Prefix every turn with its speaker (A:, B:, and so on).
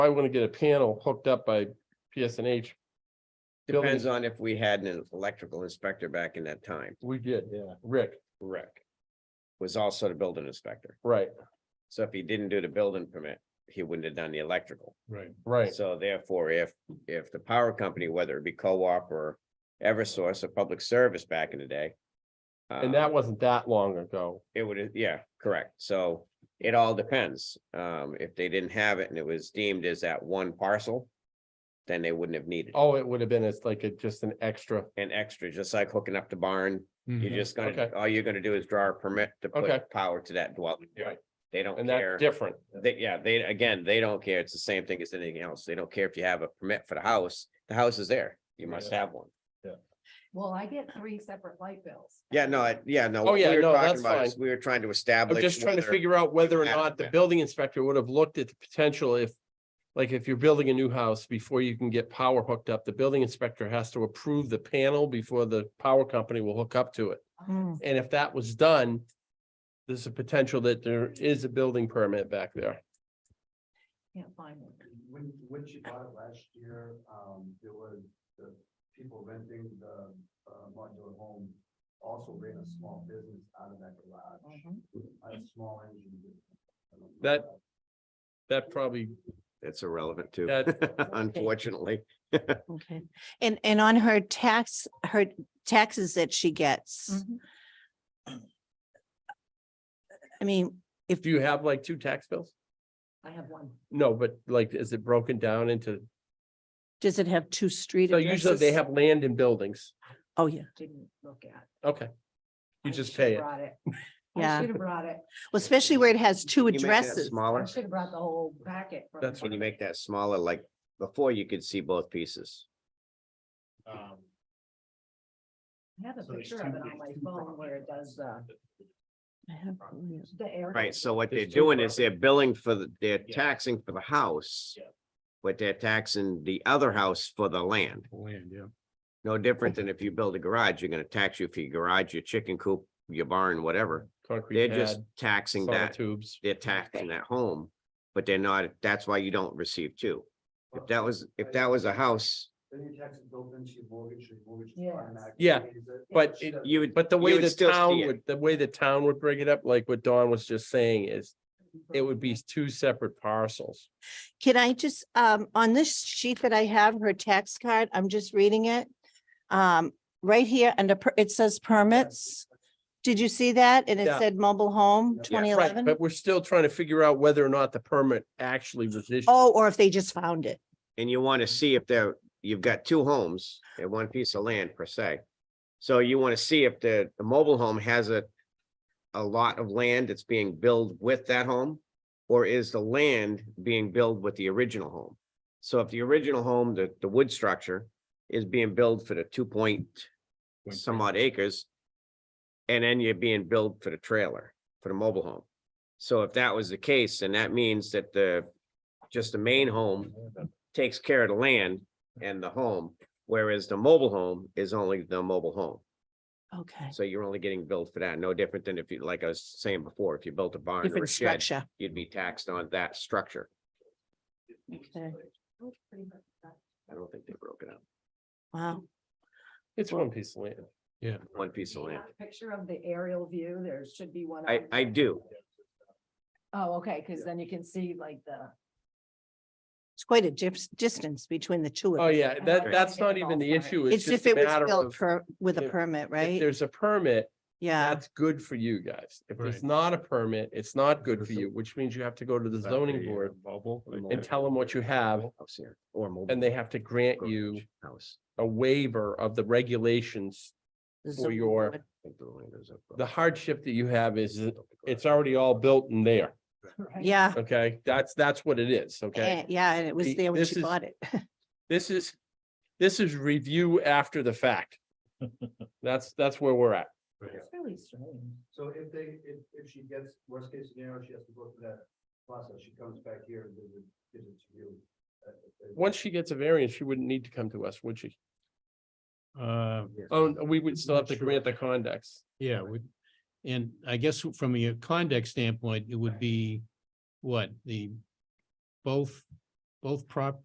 A: probably want to get a panel hooked up by PSNH. Building-
B: Depends on if we had an electrical inspector back in that time.
A: We did,
C: Yeah.
A: Rick,
B: Rick was also the building inspector.
A: right,
B: So if he didn't do the building permit, he wouldn't have done the electrical.
C: Right.
A: right,
B: So therefore, if, if the power company, whether it be co-op or Eversource or public service back in the day.
A: and
B: um,
A: that wasn't that long ago,
B: It would, yeah, correct. So it all depends. Um, if they didn't have it and it was deemed as that one parcel, then they wouldn't have needed it.
A: oh, it would have been, it's like a, just an extra,
B: an extra, just like hooking up the barn. You're just gonna,
A: Mm-hmm. Okay.
B: all you're gonna do is draw a permit to
A: Okay.
B: put power to that dwelling.
A: Right.
B: They don't
A: and
B: care.
A: that's different,
B: They, yeah, they, again, they don't care. It's the same thing as anything else. They don't care if you have a permit for the house. The house is there. You must
C: Yeah.
B: have one.
D: Well, I get three separate light bills.
B: Yeah, no, I- yeah, no.
A: Oh,
B: what we
A: yeah,
B: were
A: no,
B: talking
A: that's
B: about is We were trying to
A: I'm
B: establish.
A: just trying to
B: whether-
A: figure out whether or
B: have
A: not the
B: been.
A: building inspector would have looked at the potential if. Like if you're building a new house, before you can get power hooked up, the building inspector has to approve the panel before the power company will hook up to it.
D: Oh,
E: Mm.
A: And if that was done, there's a potential that there is a building permit back there.
D: Can't find one.
F: When, when she bought it last year, um, there was the people renting the, uh, modular home also ran a small business out of that garage,
D: Mhm.
F: a small engine. business. I don't know
A: That- That probably,
B: It's irrelevant too,
A: That-
B: unfortunately.
E: Okay, and, and on her tax, her taxes that she
A: Mm.
E: gets,
D: Mhm.
E: I mean,
A: do you have like two tax bills?
D: I have one.
A: No, but like, is it broken down into,
E: does it have two street
A: so usually they
E: addresses?
A: have land and buildings.
E: Oh, yeah,
D: Didn't look at.
A: Okay. You
D: I
A: just
D: should've
A: pay it.
D: Brought it.
E: Yeah.
D: I should have brought it.
E: well, especially where it has two
B: Can you make that
E: addresses.
D: I
B: Smaller,
D: should have brought the whole packet. from
A: That's
D: the-
B: when you make that smaller, like before you could see both pieces.
F: Um,
D: I have a
C: So there's
D: picture
C: two-
D: of it
C: there's
D: on my
C: two
D: phone
C: properties.
D: where it does the,
E: I have one, yeah.
D: the area.
B: Right, so what they're
A: There's two
B: doing is they're
A: properties.
B: billing for the, they're
C: Yeah.
B: taxing for the house.
C: Yeah.
B: But they're taxing the other house for the land.
C: Land, yeah.
B: No different than if you build a garage, you're gonna tax you for your garage, your chicken coop, your barn, whatever. They're
A: Concrete
B: just
A: pad,
B: taxing
A: sauna
B: that,
A: tubes.
B: they're taxing that home, but they're not, that's why you don't receive two. If that was, if that was a house,
F: Then your tax is built into your mortgage, your mortgage.
D: Yes.
F: automatically
A: Yeah,
F: pays it.
A: but
F: She
A: it-
F: doesn't-
B: you would.
A: But the
B: you
A: way
B: would
A: the
B: still see
A: town
B: it.
A: would, the way the town would bring it up, like what Dawn was just saying is, it would be two separate parcels.
E: Can I just, um, on this sheet that I have, her tax card, I'm just reading it. Um, right here under, per- it says permits. Did you see that? And it
A: Yeah.
E: said mobile home,
F: Yeah.
E: twenty
A: Right,
E: eleven?
A: but we're still trying to figure out whether or not the permit actually was issued.
E: Oh, or if they just found it.
B: and you want to see if there, you've got two homes and one piece of land per se. So you want to see if the, the mobile home has a, a lot of land that's being built with that home? Or is the land being built with the original home? So if the original home, the, the wood structure is being built for the two point some odd acres. And then you're being billed for the trailer, for the mobile home. So if that was the case, then that means that the, just the main home takes care of the land and the home. Whereas the mobile home is only the mobile home.
E: Okay.
B: So you're only getting billed for that. No different than if you, like I was saying before, if you built a barn or a
E: Different
B: shed,
E: structure.
B: you'd be taxed on that structure.
E: Okay.
B: I don't think they broke it up.
E: Wow.
A: It's one piece of land.
B: One piece of
D: Do you
B: land.
D: have a Picture of the aerial view. There should be one.
B: I,
D: on-
B: I do.
D: Oh, okay, because then you can see like the.
E: It's quite a dis- distance between the two
A: Oh,
E: of them.
A: yeah,
D: I'm
A: that,
D: not
A: that's
D: gonna
A: not
D: get
A: even the
D: involved,
A: issue. It's
E: It's
A: just
E: if
A: a
E: it was
A: matter
E: built
A: of,
E: per, with a
A: if-
E: permit,
A: if
E: right?
A: there's a permit,
E: Yeah,
A: that's good for you guys. If there's
C: Right.
A: not a permit, it's not good for
C: There's a-
A: you, which means you have to go to the zoning board
C: uh, Bubble.
A: and tell them what you have,
B: House here or mobile.
A: and they have to grant you
B: garage, House.
A: a waiver of the regulations.
E: the
A: for
E: zoning
A: your-
E: board.
B: think the land is up.
A: The hardship that you have is that it's already all built in there,
D: right?
E: Yeah,
A: okay? That's, that's what it is, okay?
E: eh, yeah, and it was
A: The-
E: there when
A: this
E: she
A: is-
E: bought it.
A: This is, this is review after the fact. That's, that's where we're at.
D: It's really strange.
F: So if they, if, if she gets, worst case scenario, she has to go through that process, she comes back here and gives it, gives it to you. Uh, if-
A: Once she gets a variance, she wouldn't need to come to us, would she?
C: Uh,
A: Oh, we would still have to
C: Not sure.
A: grant the condex.
C: yeah, we, and I guess from a conduct standpoint, it would be what the both both prop,